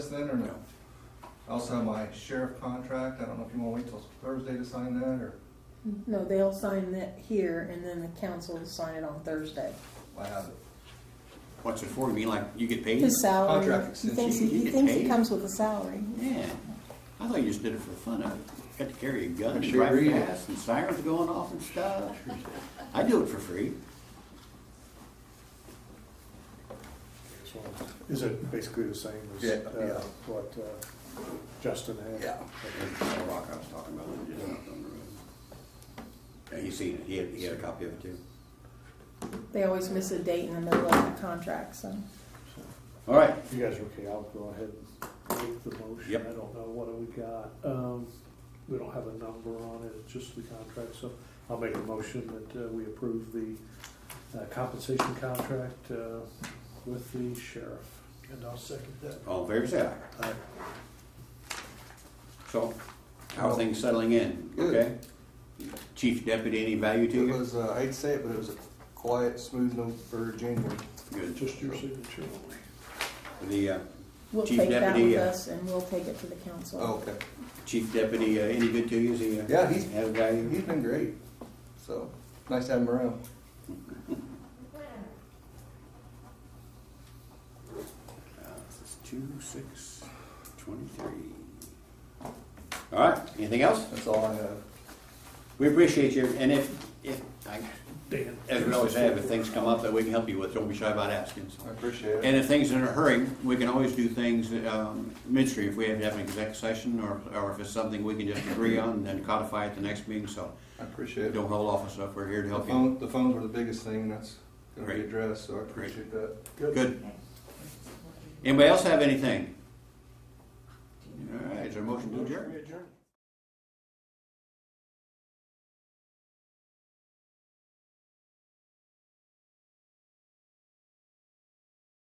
then or no? I Also have my sheriff contract, I don't know if you wanna wait till Thursday to sign that, or No, they'll sign that here and then the council will sign it on Thursday. I have it. What's it for? You mean like you get paid? His salary, Contract he thinks, extension. he You thinks get it paid. comes with a salary. Yeah. I thought you just did it for the fun of it. Got to carry a gun and Sure drive is. fast and sirens going off and stuff. I do it for free. Is it basically the same as Yeah, uh, yeah. what uh, Justin had? That rock I was talking about when you just hopped on the road. Yeah, you seen it. He had, he had a copy of it too. They always miss a date in the middle of the contract, so. All right. If you guys are okay, I'll go ahead and make the motion. Yep. I don't know what we got. Um, We don't have a number on it, it's just the contract, so I'll make a motion that uh, we approve the uh, compensation contract uh, with the sheriff. And I'll second that. All in favor, say aye. Aye. So, how are things settling in? Good. Okay? Chief deputy, any value to It you? was, uh, I hate to say it, but it was a quiet, smooth note for January. Good. Just your signature only. The uh, We'll Chief take that Deputy, with uh, us and we'll take it to the council. Oh, okay. chief deputy, uh, any good to you? Is he? uh, Yeah, he's- Have value? He's been great, so, nice to have him around. Uh, This is two, six, twenty-three. All right, anything else? That's all I have. We appreciate you, and if, if, I- Dan. as we always have, if things come up that we can help you with, don't be shy about asking. so. I appreciate it. And if things are in a hurry, we can always do things um, midstream, if we have to have an exec session, or, or if it's something we can just agree on and then codify at the next meeting, so I appreciate it. don't hold off on stuff, we're here to The help you. phone, the phones were the biggest thing, that's gonna be Great. addressed, so I appreciate that. Good. Anybody else have anything? All right, is there a motion to adjourn? adjourn.